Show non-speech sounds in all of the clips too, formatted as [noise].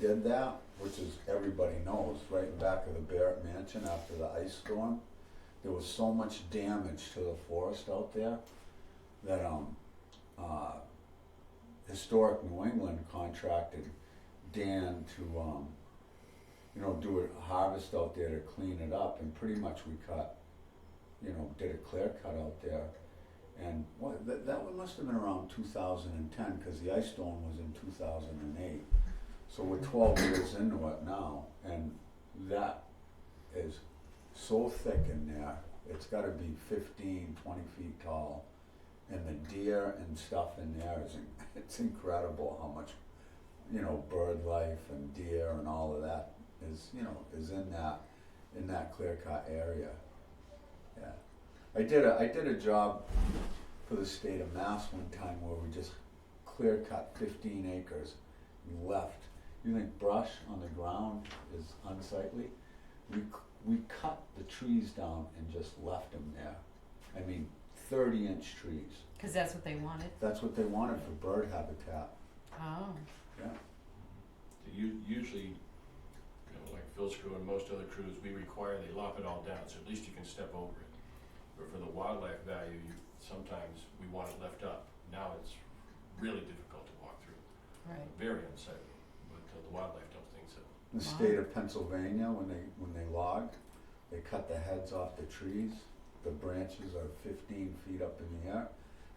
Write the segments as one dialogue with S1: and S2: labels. S1: did that, which is, everybody knows, right back of the Barrett Mansion after the ice storm, there was so much damage to the forest out there that, um, uh, Historic New England contracted Dan to, um, you know, do a harvest out there to clean it up, and pretty much we cut, you know, did a clear cut out there. And what, that, that one must have been around two thousand and ten, cause the ice storm was in two thousand and eight. So we're twelve years into it now, and that is so thick in there, it's gotta be 15, 20 feet tall. And the deer and stuff in there is, in- it's incredible how much, you know, bird life and deer and all of that is, you know, is in that, in that clear cut area. Yeah. I did a, I did a job for the state of Mass one time where we just clear cut fifteen acres and left. You think brush on the ground is unsightly? We, c- we cut the trees down and just left them there. I mean, thirty inch trees.
S2: Because that's what they wanted.
S1: That's what they wanted for bird habitat,
S2: Oh.
S1: yeah.
S3: U- Usually, you know, like Phil's crew and most other crews, we require they lop it all down, so at least you can step over it. But for the wildlife value, you, sometimes we want it left up. Now it's really difficult to walk through,
S2: Right.
S3: very unsightly, but uh, the wildlife don't think so.
S1: The
S2: Wow.
S1: state of Pennsylvania, when they, when they logged, they cut the heads off the trees. The branches are fifteen feet up in the air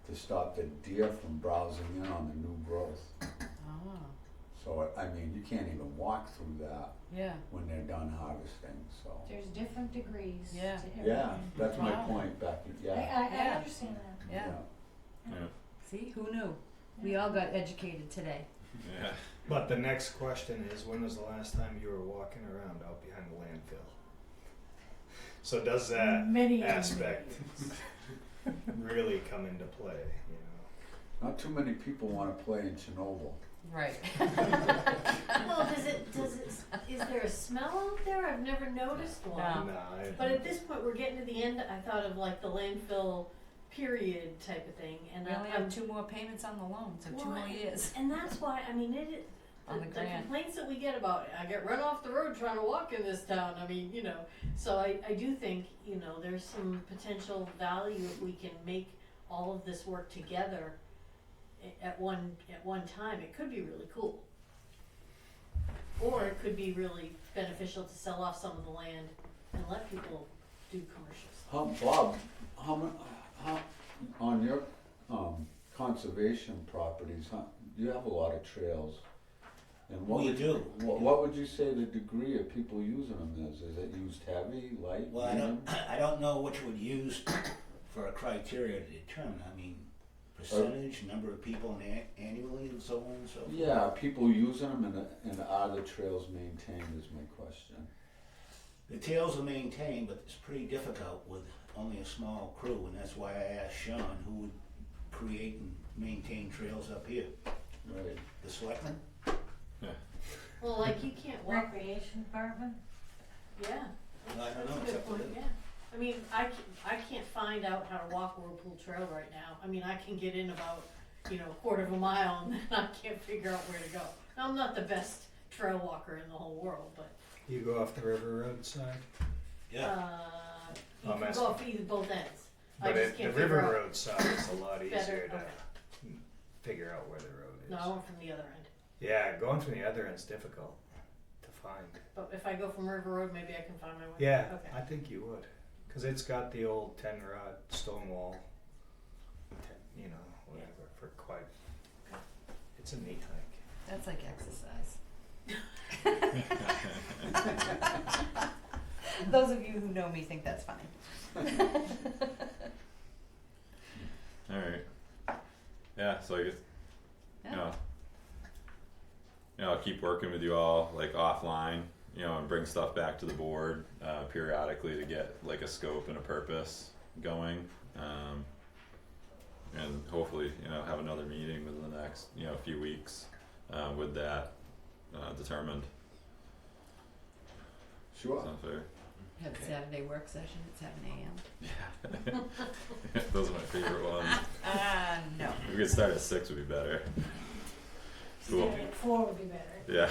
S1: to stop the deer from browsing in on the new growth.
S2: Oh.
S1: So, I I mean, you can't even walk through that
S2: Yeah.
S1: when they're done harvesting, so.
S4: There's different degrees to
S2: Yeah.
S4: everything.
S1: Yeah, that's my
S2: Wow.
S1: point, Becky,
S4: I,
S1: yeah.
S4: I, I
S2: Yeah.
S4: understand that.
S2: Yeah.
S5: Yeah.
S2: See, who knew? We all got educated today.
S5: Yeah.
S6: But the next question is when was the last time you were walking around out behind the landfill? So does that
S4: Many
S6: aspect really come into play, you know?
S1: Not too many people wanna play in Chernobyl.
S2: [laughs] Right.
S4: Well, does it, does it, is there a smell out there? I've never noticed one.
S2: No.
S6: Nah, I-
S7: But at this point, we're getting to the end. I thought of like the landfill period type of thing, and
S2: We only
S7: I, am
S2: have two more payments on the loan, so two
S7: Why?
S2: more years
S7: and that's why I mean it.
S2: on the
S7: the, the
S2: grant.
S7: complaints that we get about I get run off the road trying to walk in this town. I mean, you know. So I, I do think you know there's some potential value if we can make all of this work together a- at one at one time. It could be really cool, or it could be really beneficial to sell off some of the land and let people do commercial stuff.
S1: How, Bob, how, mu- how, on your, um, conservation properties, huh, you have a lot of trails. And what
S8: We
S1: would,
S8: do.
S1: what, what would you say the degree of people using them is? Is it used heavy, light,
S8: Well, I
S1: medium?
S8: don't, [clears throat] I don't know which would use for a criteria to determine, I mean, percentage, number of people an- annually and so on and so forth.
S1: Yeah, are people using them and, and are the trails maintained is my question.
S8: The tails are maintained, but it's pretty difficult with only a small crew, and that's why I asked Sean who would create and maintain trails up here.
S1: Right.
S8: The selectmen?
S7: Well, like you can't walk.
S4: Recreation department?
S7: Yeah.
S8: I don't know,
S7: That's a
S8: except
S7: good
S8: for
S7: point,
S8: the-
S7: yeah. I mean, I can, I can't find out how to walk Whirlpool Trail right now. I mean, I can get in about, you know, a quarter of a mile and then [laughs] I can't figure out where to go. Now, I'm not the best trail walker in the whole world, but,
S6: You go off the river road side?
S8: Yeah,
S7: uh, you
S6: I'm
S7: can
S6: asking-
S7: go off either both ends. I
S6: But
S7: just
S6: it, the
S7: can't
S6: river
S7: figure out.
S6: road side is a
S7: [coughs]
S6: lot
S7: Better,
S6: easier to
S7: okay.
S6: figure out where the road is.
S7: No, I went from the other end.
S6: Yeah, going from the other end's difficult to find.
S7: But if I go from River Road, maybe I can find my way.
S6: Yeah,
S7: Okay.
S6: I think you would, because it's got the old ten rod stone wall, ten, you know, whatever for quite. It's a neat hike.
S2: That's like exercise. [laughs] Those of you who know me think that's funny.
S5: [laughs] All right. Yeah. So I guess oh, you know, you know, I'll keep working with you all like offline. You know, and bring stuff back to the board uh, periodically to get like a scope and a purpose going. Um, and hopefully, you know, have another meeting within the next you know few weeks uh, with that uh, determined.
S1: Sure.
S5: Sounds fair.
S2: We Have a Saturday work session at seven AM.
S5: Yeah. Those are my favorite ones.
S2: Ah, no.
S5: If we could start at six, would be better. Cool.
S4: Four would be better.
S5: Yeah.